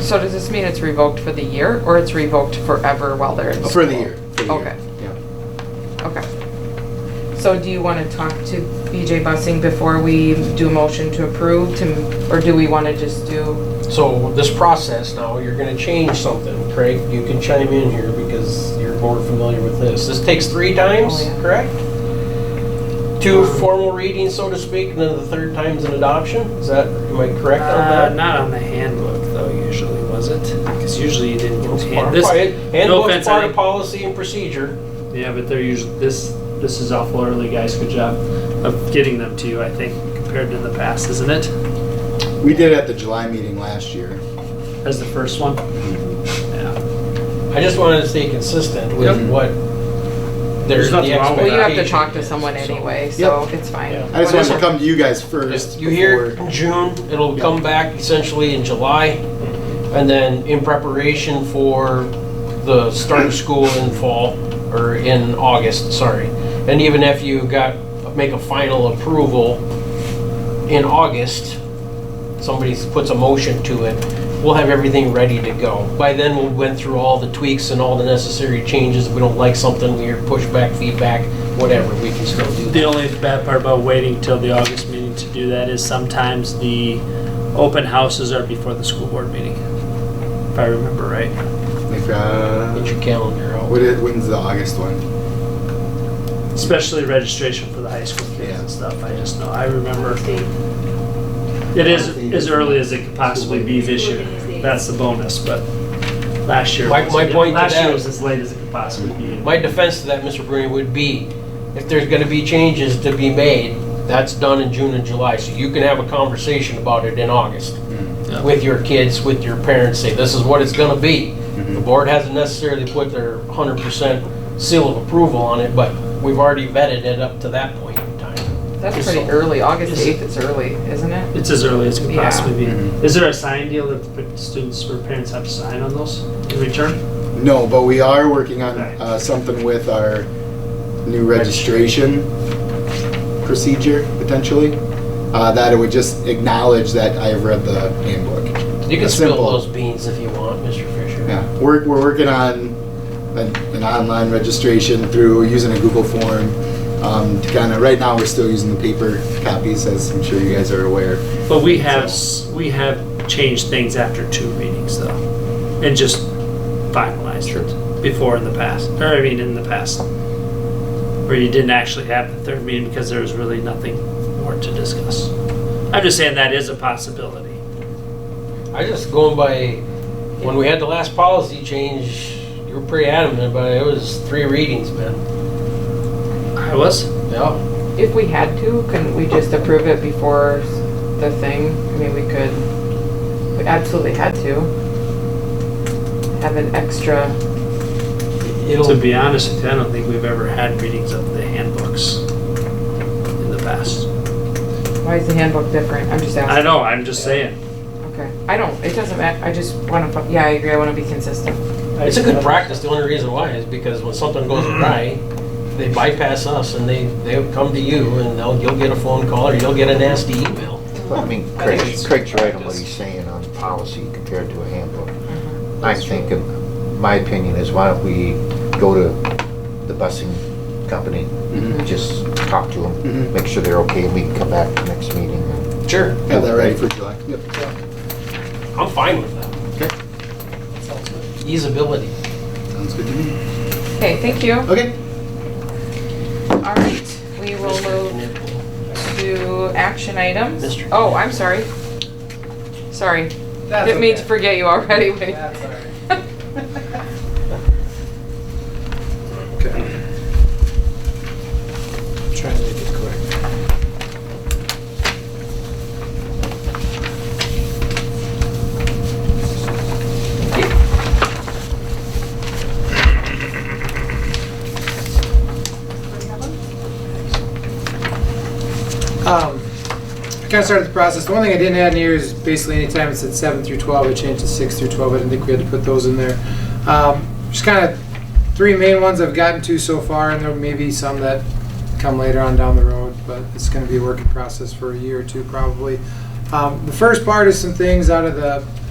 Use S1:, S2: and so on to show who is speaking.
S1: So does this mean it's revoked for the year, or it's revoked forever while they're in school?
S2: For the year. for the year.
S1: Okay.
S2: Yeah.
S1: Okay. So do you want to talk to BJ Bussing before we do a motion to approve, to, or do we want to just do?
S3: So this process now, you're gonna change something, Craig, you can chime in here because you're more familiar with this. This takes three times,
S1: Oh, yeah.
S3: correct? Two formal readings, so to speak, and then the third time's an adoption, is that, am I correct
S4: Uh,
S3: on that?
S4: not on the handbook though, usually, was it? Because usually you didn't get hand, this, no
S3: Handbook's
S4: offense, I
S3: part of
S4: think-
S3: policy and procedure.
S4: yeah, but they're usually, this, this is awful early, guys, good job of getting them to you, I think, compared to the past, isn't it?
S2: We did it at the July meeting last year.
S4: As the first one? Yeah.
S3: I just wanted to stay consistent with
S2: Yep.
S3: what there's
S4: There's
S3: the
S4: nothing wrong
S3: expectation.
S4: with
S1: Well, you have to
S4: Vacation,
S1: talk to
S3: is,
S1: someone
S3: so-
S1: anyway, so it's fine.
S3: Yeah.
S2: I just wanted to
S1: Whatever.
S2: come to you guys first.
S3: You hear
S2: before-
S3: in June, it'll come back essentially in July, and then in preparation for the start of school in fall, or in August, sorry. And even if you got, make a final approval in August, somebody puts a motion to it, we'll have everything ready to go. By then, we went through all the tweaks and all the necessary changes. If we don't like something, we hear pushback, feedback, whatever, we can still do that.
S4: The only bad part about waiting till the August meeting to do that is sometimes the open houses are before the school board meeting, if I remember right.
S2: Like, uh,
S3: Get your calendar out.
S2: what is, when's the August one?
S4: Especially registration for the high school kids and stuff, I just know, I remember. It is as early as it could possibly be this year, that's the bonus, but last year.
S3: My-
S4: was-
S3: my point to
S4: Last year
S3: that-
S4: was as late as it could possibly be.
S3: My defense to that, Mr. Bruni, would be if there's gonna be changes to be made, that's done in June and July, so you can have a conversation about it in August
S2: Mm-hmm.
S4: Yeah.
S3: with your kids, with your parents, say, this is what it's gonna be.
S2: Mm-hmm.
S3: The board hasn't necessarily put their hundred percent seal of approval on it, but we've already vetted it up to that point in time.
S1: That's pretty early, August eighth is early, isn't it?
S4: It's as early as it could
S1: Yeah.
S4: possibly be.
S3: Mm-hmm.
S2: Mhm.
S4: Is there a sign deal that the students or parents have to sign on those in return?
S2: No, but we are working on
S4: Right.
S2: uh, something with our new registration procedure potentially. Uh, that it would just acknowledge that I have read the handbook.
S3: You can
S2: That's
S3: spill
S2: simple.
S3: those beans if you want, Mr. Fisher.
S2: Yeah, we're, we're working on an, an online registration through using a Google form. Um, to kind of right now, we're still using the paper copies, as I'm sure you guys are aware.
S4: But we have, s- we have changed things after two meetings though, and just finalized it before in the past, or I mean, in the past. Where you didn't actually have the third meeting because there was really nothing more to discuss. I'm just saying that is a possibility.
S3: I just going by, when we had the last policy change, you were pretty adamant about it, it was three readings, man.
S4: I was,
S3: Yeah.
S1: If we had to, couldn't we just approve it before the thing? I mean, we could, we absolutely had to. Have an extra,
S3: It'll,
S4: to be honest with you, I don't think we've ever had readings of the handbooks in the past.
S1: why is the handbook different? I'm just
S4: I
S1: asking.
S4: know, I'm just saying.
S1: Okay, I don't, it doesn't matter, I just wanna, fu- yeah, I agree, I wanna be consistent.
S3: it's a good practice. The only reason why is because when something goes awry, they bypass us and they, they'll come to you and they'll, you'll get a phone call or you'll get a nasty email.
S5: Well, I mean,
S3: I
S5: Craig,
S3: think it's
S5: Craig's right on what
S3: practice.
S5: he's saying on policy compared to a handbook. I'm thinking, my opinion is why don't we go to the busing company,
S2: Mhm.
S5: just talk to
S2: Mhm.
S5: them, make sure they're okay, and we can come back to the next meeting. and-
S3: Sure.
S2: Have that ready for July. Yep.
S3: I'm fine with that.
S2: Okay.
S3: Easeability.
S2: Sounds good to me.
S1: Okay, thank you.
S2: Okay.
S1: All right, we will move to action items.
S3: Mr.
S1: Oh, I'm sorry. Sorry, didn't mean to forget you already.
S2: Okay.
S3: Trying to make it quick.
S6: Um, I kind of started the process. The one thing I didn't add in here is basically anytime it said seven through twelve, I changed to six through twelve. I didn't think we had to put those in there. Um, just kind of three main ones I've gotten to so far, and there may be some that come later on down the road, but it's going to be a working process for a year or two probably. Um, the first part is some things out of the